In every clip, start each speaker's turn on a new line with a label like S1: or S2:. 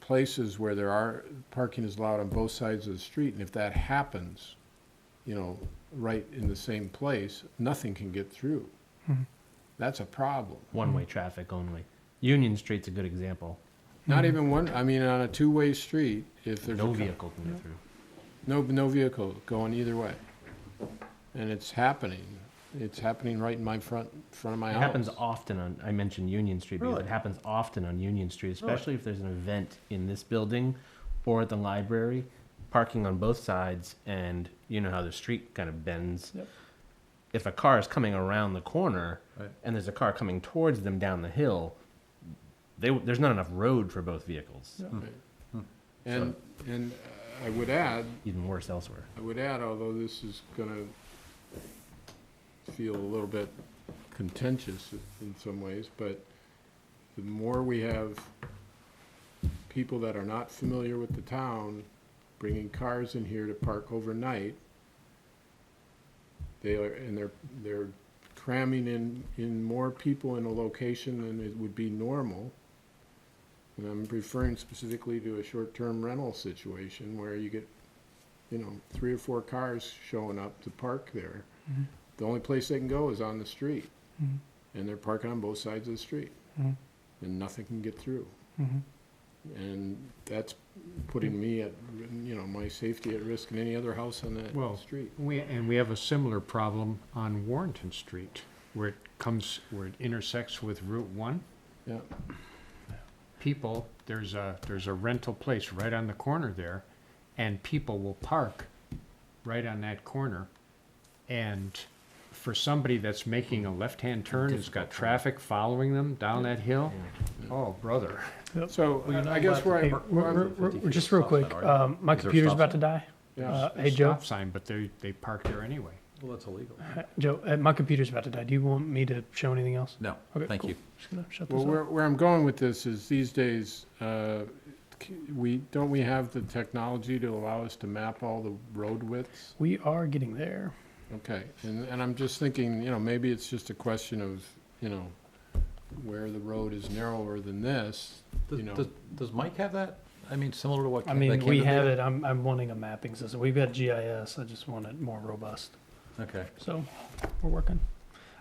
S1: places where there are, parking is allowed on both sides of the street, and if that happens, you know, right in the same place, nothing can get through. That's a problem.
S2: One-way
S3: Hmm.
S2: traffic only. Union Street's a good example.
S1: Not even one, I mean, on a two-way street, if there's. a
S2: No
S1: cou-
S2: vehicle can get through.
S1: No, no vehicle going either way. And it's happening. It's happening right in my front, front of my
S2: It
S1: house.
S2: happens often on, I mentioned Union Street because it
S3: Really?
S2: happens often on Union Street, especially if there's an event in this building or at the library, parking on both sides and you know how the street kind of bends.
S3: Yep.
S2: If a car is coming around the corner
S1: Right.
S2: and there's a car coming towards them down the hill, they, there's not enough road for both vehicles.
S1: And, and I would add,
S2: Even worse elsewhere.
S1: I would add, although this is gonna feel a little bit contentious in some ways, but the more we have people that are not familiar with the town bringing cars in here to park overnight, they are, and they're, they're cramming in, in more people in a location than it would be normal. And I'm referring specifically to a short-term rental situation where you get you know, three or four cars showing up to park there. The only place they can go is on the street. And they're parking on both sides of the street. And nothing can get through. And that's putting me at, you know, my safety at risk and any other house on that
S4: Well,
S1: street.
S4: We, and we have a similar problem on Warrenton Street, where it comes, where it intersects with Route One.
S1: Yeah.
S4: People, there's a, there's a rental place right on the corner there, and people will park right on that corner. And for somebody that's making a left-hand turn, has got traffic following them down that hill, oh, brother.
S1: So I guess where I,
S5: Hey,
S1: where
S5: we're-
S1: I'm-
S5: we're- we're- Just real quick, um, my computer's about to die.
S1: yeah,
S5: Uh, Hey, Joe,
S4: Stop sign, but they, they park there anyway.
S3: Well, that's illegal.
S5: Joe, uh, my computer's about to die. Do you want me to show anything else?
S3: No,
S5: Okay,
S3: thank
S5: cool.
S3: you.
S5: Just gonna shut this
S1: well, where,
S5: off.
S1: where I'm going with this is these days, uh, c- we, don't we have the technology to allow us to map all the road widths?
S5: We are getting there.
S1: Okay, and, and I'm just thinking, you know, maybe it's just a question of, you know, where the road is narrower than this,
S3: Does,
S1: you know.
S3: does, does Mike have that? I mean, similar to what?
S5: I
S3: Ken- that
S5: mean, we
S3: Camden
S5: have
S3: did?
S5: it. I'm, I'm wanting a mapping system. We've got GIS. I just want it more robust.
S3: Okay.
S5: So we're working.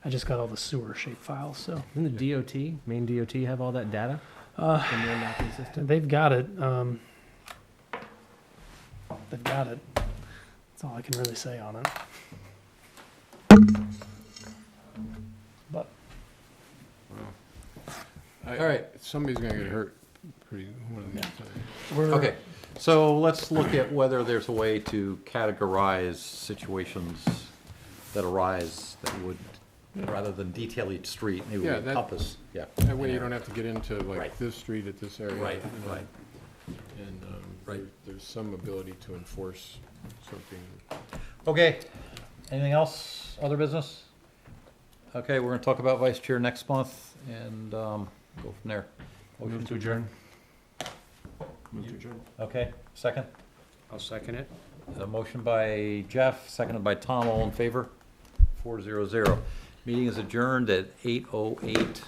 S5: I just got all the sewer shape files, so
S2: Doesn't the DOT, main DOT, have all that data? Uh. In their mapping system?
S5: they've got it. Um, they've got it. That's all I can really say on it. But
S1: I-
S3: All right.
S1: Somebody's gonna get hurt pretty, one of these times.
S5: we're
S3: Okay, so let's look at whether there's a way to categorize situations that arise that would, rather than detail each street, maybe we
S1: Yeah, that-
S3: encompass, yeah.
S1: That way you don't have to get into like
S3: Right.
S1: this street at this area.
S3: Right,
S1: you know,
S3: right.
S1: And, um,
S3: Right.
S1: there, there's some ability to enforce something.
S3: Okay, anything else, other business? Okay, we're gonna talk about vice chair next month and, um, go from there. Motion to adjourn. Okay, second?
S4: I'll second it.
S3: A motion by Jeff, seconded by Tom, all in favor? Four zero zero. Meeting is adjourned at eight oh eight.